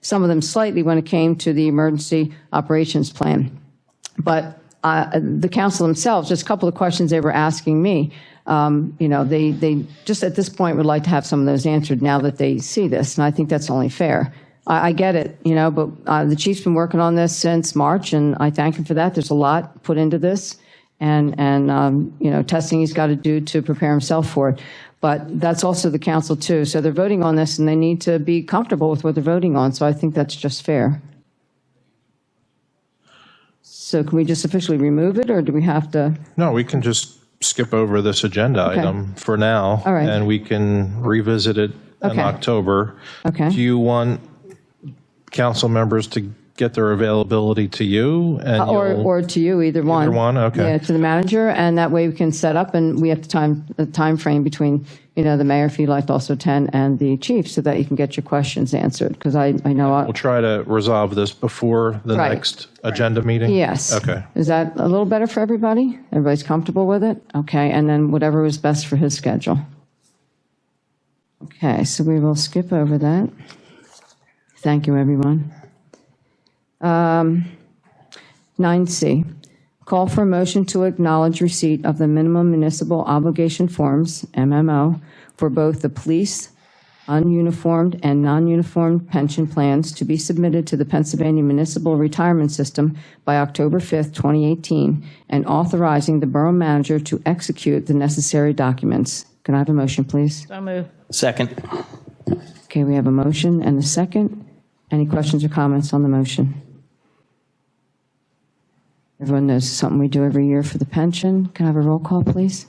some of them slightly when it came to the emergency operations plan. But uh, the council themselves, just a couple of questions they were asking me, um, you know, they, they just at this point would like to have some of those answered now that they see this, and I think that's only fair. I, I get it, you know, but uh, the chief's been working on this since March, and I thank him for that. There's a lot put into this, and, and, um, you know, testing he's got to do to prepare himself for it. But that's also the council, too. So they're voting on this, and they need to be comfortable with what they're voting on, so I think that's just fair. So can we just officially remove it, or do we have to? No, we can just skip over this agenda Okay. item for now. All right. And we can revisit it in Okay. October. Okay. Do you want council members to get their availability to you? and Uh, Or, you'll- or to you, either one. one, okay. Yeah, to the manager, and that way we can set up, and we have the time, the timeframe between, you know, the mayor, if you'd like to also attend, and the chief, so that you can get your questions answered, because I, I know, I- We'll try to resolve this before the Right. next agenda meeting? yes. Okay. Is that a little better for everybody? Everybody's comfortable with it? Okay, and then whatever was best for his schedule. Okay, so we will skip over that. Thank you, everyone. Nine C, call for a motion to acknowledge receipt of the minimum municipal obligation forms, MMO, for both the police, ununiformed and non-uniformed pension plans to be submitted to the Pennsylvania Municipal Retirement System by October 5th, 2018, and authorizing the borough manager to execute the necessary documents. Can I have a motion, please? So moved. Second. Okay, we have a motion and a second. Any questions or comments on the motion? Everyone knows it's something we do every year for the pension. Can I have a roll call, please?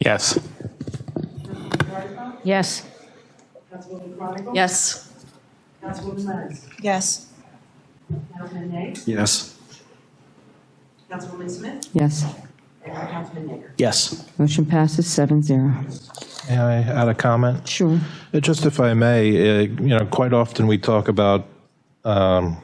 Yes. Yes. Yes. Councilwoman Lenz. Yes. Councilman Nay. Yes. Councilwoman Smith. Yes. And Councilman Yeager. Yes. Motion passes seven zero. May I add a comment? Sure. Uh, Just if I may, uh, you know, quite often we talk about um,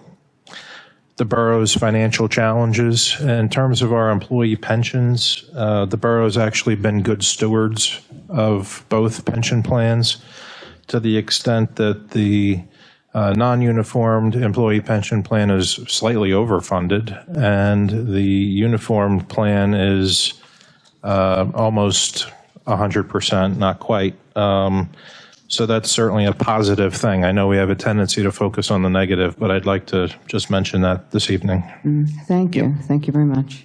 the borough's financial challenges. In terms of our employee pensions, uh, the borough's actually been good stewards of both pension plans to the extent that the uh, non-uniformed employee pension plan is slightly overfunded, and the uniformed plan is uh, almost 100%, not quite. Um, so that's certainly a positive thing. I know we have a tendency to focus on the negative, but I'd like to just mention that this evening. Thank you. Thank you very much.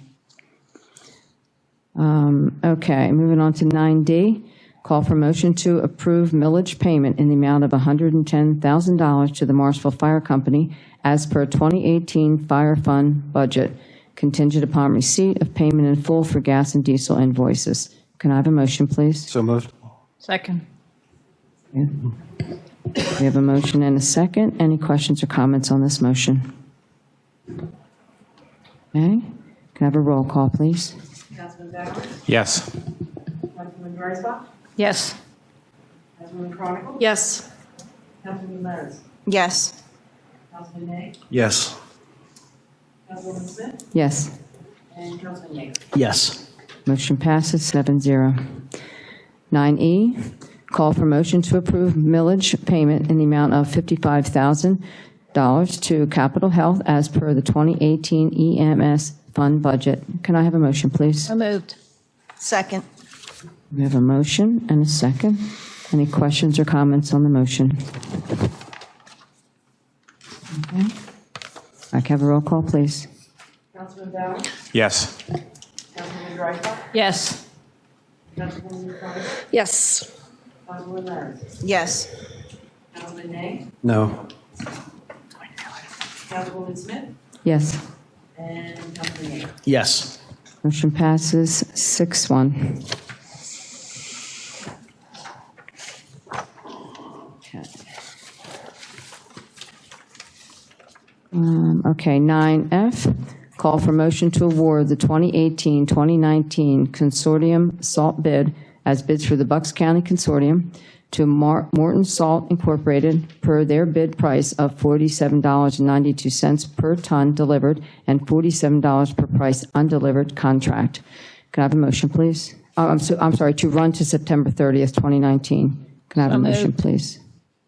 Um, Okay, moving on to 9D. Call for motion to approve millage payment in the amount of $110,000 to the Marshville Fire Company as per 2018 Fire Fund budget, contingent upon receipt of payment in full for gas and diesel invoices. Can I have a motion, please? So moved. Second. We have a motion and a second. Any questions or comments on this motion? Okay, can I have a roll call, please? Councilman Bauer. Yes. Councilman Marzbach. Yes. Councilwoman Chronicle. Yes. Councilman Lenz. Yes. Councilman Nay. Yes. Councilwoman Smith. Yes. And Councilman Yeager. Yes. Motion passes 7-0. 9E, E, call for motion to approve millage payment in the amount of $55,000 to Capital Health as per the 2018 EMS fund budget. Can I have a motion, please? So moved. Second. We have a motion and a second. Any questions or comments on the motion? Okay. I can have a roll call, please. Councilman Bauer. Yes. Councilman Marzbach. Yes. Councilwoman Chronicle. Yes. Councilman Lenz. Yes. Councilman Nay. No. Councilwoman Smith. Yes. And Councilman Yeager. Yes. Motion passes 6-1. Okay. Um, Okay, 9F, call for motion to award the 2018-2019 consortium salt bid as bids for the Bucks County Consortium to Mar- Morton Salt Incorporated per their bid price of $47.92 per ton delivered and $47 per price undelivered contract. Can I have a motion, please? Oh, I'm so, I'm sorry, to run to September 30th, 2019. Can I have a So moved. motion, please?